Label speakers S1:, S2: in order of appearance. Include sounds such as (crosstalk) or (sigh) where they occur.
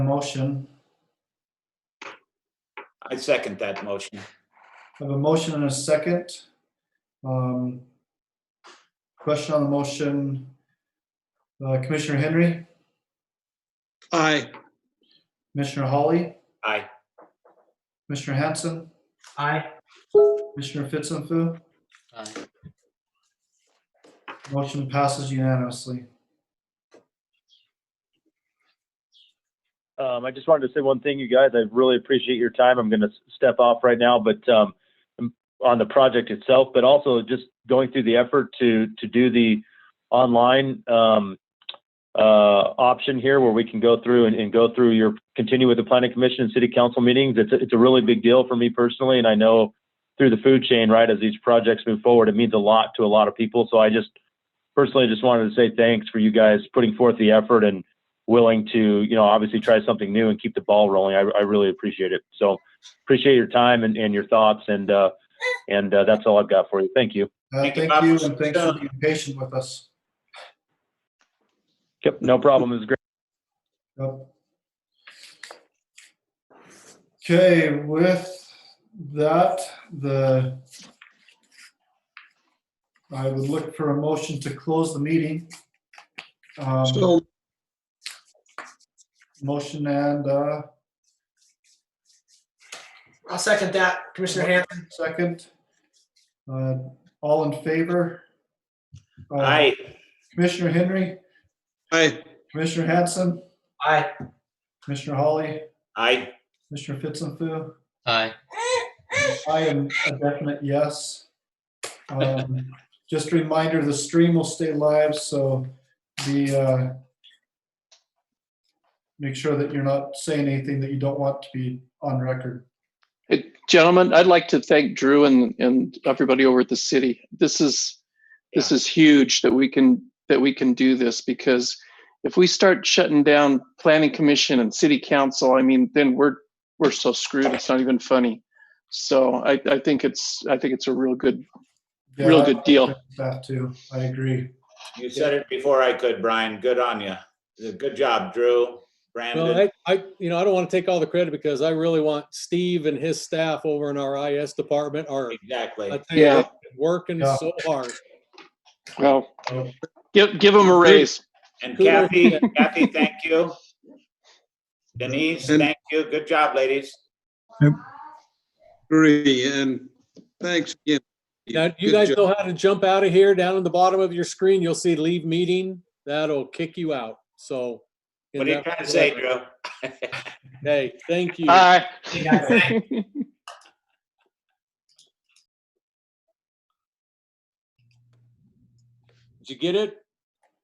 S1: motion,
S2: I second that motion.
S1: I have a motion and a second. Um, Question on the motion. Uh, Commissioner Henry,
S3: Aye.
S1: Commissioner Hawley,
S2: Aye.
S1: Commissioner Hanson,
S4: Aye.
S1: Commissioner Fitzpatrick.
S4: Aye.
S1: Motion passes unanimously.
S5: Um, I just wanted to say one thing, you guys. I really appreciate your time. I'm going to step off right now, but um, on the project itself, but also just going through the effort to to do the online um, uh, option here, where we can go through and, and go through your continue with the planning commission and city council meetings. It's a, it's a really big deal for me personally, and I know through the food chain, right, as these projects move forward, it means a lot to a lot of people. So I just personally just wanted to say thanks for you guys putting forth the effort and willing to, you know, obviously try something new and keep the ball rolling. I, I really appreciate it. So appreciate your time and, and your thoughts. And, uh, and, uh, that's all I've got for you. Thank you.
S1: Uh,
S2: Thank you,
S1: Thank
S2: Bob.
S1: you, and thanks for being patient with us.
S5: Yep. No problem. It was great.
S1: Yep. Okay, with that, the I would look for a motion to close the meeting. Um,
S3: So,
S1: Motion and uh,
S4: I'll second that, Commissioner Hanson.
S1: second. Uh, All in favor? Uh,
S2: Aye.
S1: Commissioner Henry,
S3: aye.
S1: Commissioner Hanson,
S4: Aye.
S1: Commissioner Hawley,
S2: Aye.
S1: Commissioner Fitzpatrick.
S4: Aye.
S1: I am a definite yes. Um, Just a reminder, the stream will stay live, so the, uh, make sure that you're not saying anything that you don't want to be on record.
S6: Hey, Gentlemen, I'd like to thank Drew and, and everybody over at the city. This is, this is huge that we can, that we can do this because if we start shutting down planning commission and city council, I mean, then we're, we're so screwed. It's not even funny. So I, I think it's, I think it's a real good,
S1: Yeah,
S6: Real
S1: I-
S6: good deal.
S1: That too, I agree.
S2: You said it before I could, Brian. Good on you. Good job, Drew,
S7: Well,
S2: Brandon.
S7: I, I, you know, I don't want to take all the credit because I really want Steve and his staff over in our IS department are, I
S2: Exactly.
S7: tell you,
S6: Yeah.
S7: they've been working
S1: Yeah.
S7: so hard.
S6: well, give, give them a raise.
S2: And
S7: Who wrote
S2: Kathy, Kathy, thank
S7: (laughs)
S2: you. Denise,
S3: And-
S2: thank you. Good job, ladies.
S3: Agree, and thanks again.
S7: Now, you
S3: Good
S7: guys
S3: job.
S7: know how to jump out of here. Down in the bottom of your screen, you'll see leave meeting. That'll kick you out. So. in
S2: What are you
S7: that-
S2: trying to say, Uh, Drew?
S7: Hey, thank you.
S6: Aye.
S7: Did you get it?